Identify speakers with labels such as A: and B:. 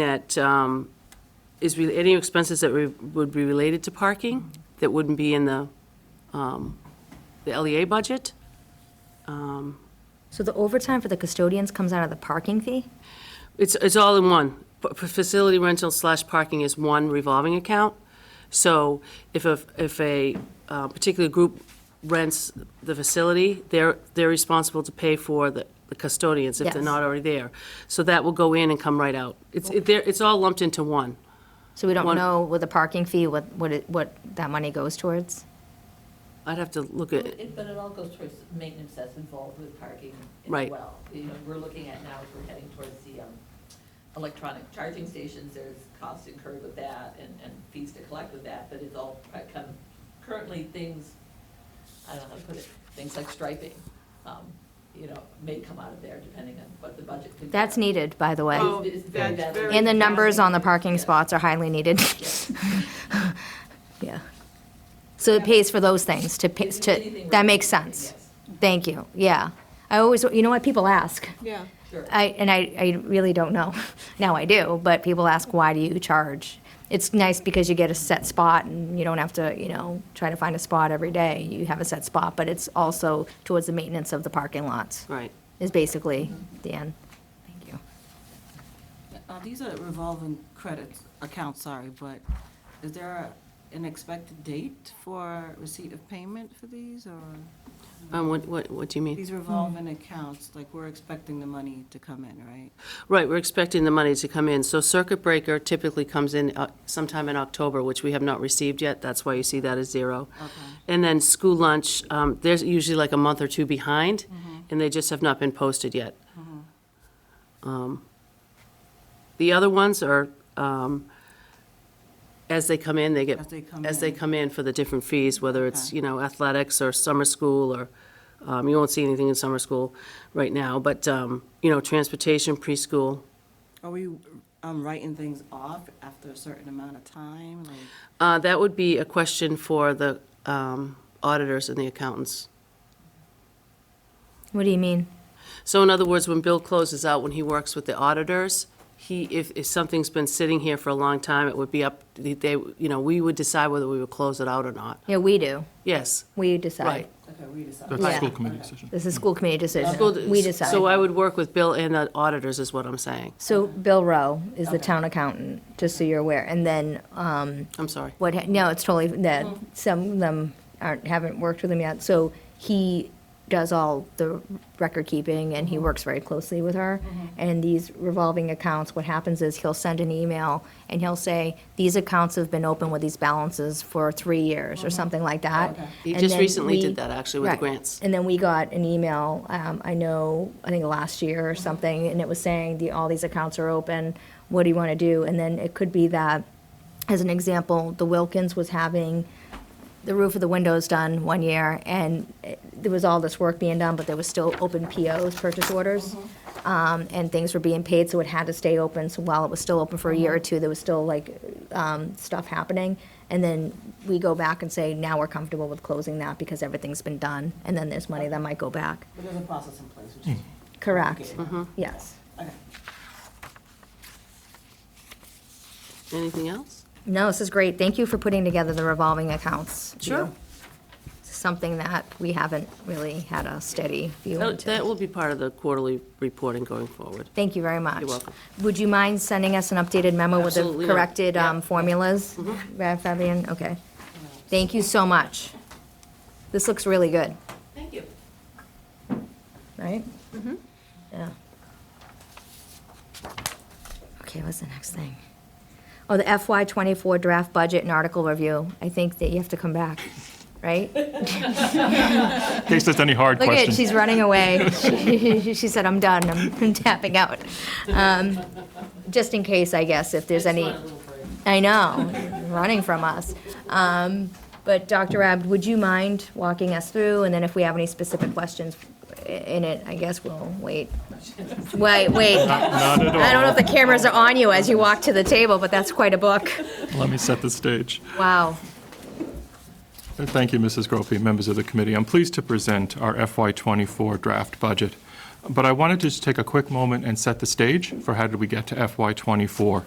A: that um, is, re- any expenses that re- would be related to parking that wouldn't be in the, um, the LEA budget?
B: So the overtime for the custodians comes out of the parking fee?
A: It's, it's all in one. P- p- Facility rental slash parking is one revolving account. So if a, if a uh, particular group rents the facility, they're, they're responsible to pay for the the custodians if they're
B: Yes.
A: not already there. So that will go in and come right out. It's, it- they're- it's all lumped into one.
B: So we don't
A: One-
B: know with the parking fee what, what, it- what that money goes towards?
A: I'd have to look at,
C: It- But it all goes towards maintenance that's involved with parking as
A: Right.
C: well. You know, we're looking at now, as we're heading towards the um, electronic charging stations, there's costs incurred with that and, and fees to collect with that, but it's all uh, kind of currently things, I don't know how to put it, things like striping, um, you know, may come out of there depending on what the budget could be.
B: That's needed, by the way.
D: Oh,
C: It's very
D: that's
C: bad.
D: very
B: And the
D: bad.
B: numbers on the parking
C: Yes.
B: spots are highly needed.
C: Yes.
B: Yeah. So it pays for those things to, pay-
C: It's
B: to,
C: anything
B: that makes
C: related,
B: sense.
C: yes.
B: Thank you, yeah. I always, you know what, people ask.
D: Yeah.
C: Sure.
B: I, and I, I really don't know. Now I do, but people ask, why do you charge? It's nice because you get a set spot and you don't have to, you know, try to find a spot every day. You have a set spot, but it's also towards the maintenance of the parking lots,
A: right.
B: is basically the end. Thank you.
E: Uh, These are revolving credits, accounts, sorry, but is there an expected date for receipt of payment for these, or
A: Um, What, what, what do you mean?
E: these revolving accounts, like, we're expecting the money to come in, right?
A: Right, we're expecting the money to come in. So circuit breaker typically comes in uh, sometime in October, which we have not received yet. That's why you see that as zero. And then school lunch, um, they're usually like a month or two behind,
E: Mm-hmm.
A: and they just have not been posted yet. Um, The other ones are, um, as they come in, they get.
E: As they come
A: As they
E: in.
A: come in for the different fees, whether it's,
E: Okay.
A: you know, athletics or summer school or, um, you won't see anything in summer school right now, but, um, you know, transportation, preschool.
E: Are we um, writing things off after a certain amount of time, like,
A: Uh, That would be a question for the um, auditors and the accountants.
B: What do you mean?
A: So in other words, when Bill closes out, when he works with the auditors, he, if, if something's been sitting here for a long time, it would be up, they, you know, we would decide whether we would close it out or not.
B: Yeah, we do.
A: Yes,
B: We decide.
A: right.
E: okay, we decide?
F: That's
B: Yeah.
F: a school committee decision.
B: This is school committee decision.
A: School-
B: We decide.
A: So I would work with Bill and the auditors, is what I'm saying.
B: So Bill Rowe is the town accountant, just so you're aware. And then, um,
A: I'm sorry.
B: what, ha- no, it's totally, that, some of them aren't, haven't worked with him yet, so he does all the record keeping, and he works very closely with her. And these revolving accounts, what happens is he'll send an email, and he'll say, these accounts have been open with these balances for three years, or something like that.
A: He
B: And
A: just
B: then
A: recently did
B: we-
A: that, actually, with the
B: Right.
A: grants.
B: And then we got an email, um, I know, I think last year or something, and it was saying the, all these accounts are open, what do you want to do? And then it could be that, as an example, the Wilkins was having the roof of the windows done one year, and it- there was all this work being done, but there was still open POs, purchase orders,
A: Mm-hmm.
B: um, and things were being paid, so it had to stay open. So while it was still open for a year
A: Mm-hmm.
B: or two, there was still like um, stuff happening. And then we go back and say, now we're comfortable with closing that because everything's been done, and then there's money that might go back.
E: But there's a process in place, which is,
B: Correct.
A: Mm-hmm.
B: Yes.
E: okay.
A: Anything else?
B: No, this is great. Thank you for putting together the revolving accounts.
A: Sure.
B: Something that we haven't really had a steady view
A: That
B: into.
A: that will be part of the quarterly reporting going forward.
B: Thank you very much.
A: You're welcome.
B: Would you mind sending us an updated memo with the
A: Absolutely not.
B: corrected
A: Yeah. Mm-hmm.
B: um, formulas? Fa- Fabian, okay. Thank you so much. This looks really good,
C: Thank you.
B: right? Yeah. Okay, what's the next thing? Oh, the FY twenty-four draft budget and article review. I think that you have to come back, right?
F: In case there's any hard
B: Look at it,
F: questions.
B: she's running away. She she said, I'm done, I'm I'm tapping out. Um, Just in case, I guess, if there's any. I know, running from us. Um, But Dr. Abd, would you mind walking us through? And then if we have any specific questions i- in it, I guess we'll wait. Wait, wait.
F: Not at
B: I don't know if
F: all.
B: the cameras are on you as you walk to the table, but that's quite a book.
F: Let me set the stage.
B: Wow.
F: Thank you, Mrs. Gropey, and members of the committee. I'm pleased to present our FY24 draft budget, but I wanted to just take a quick moment and set the stage for how did we get to FY24.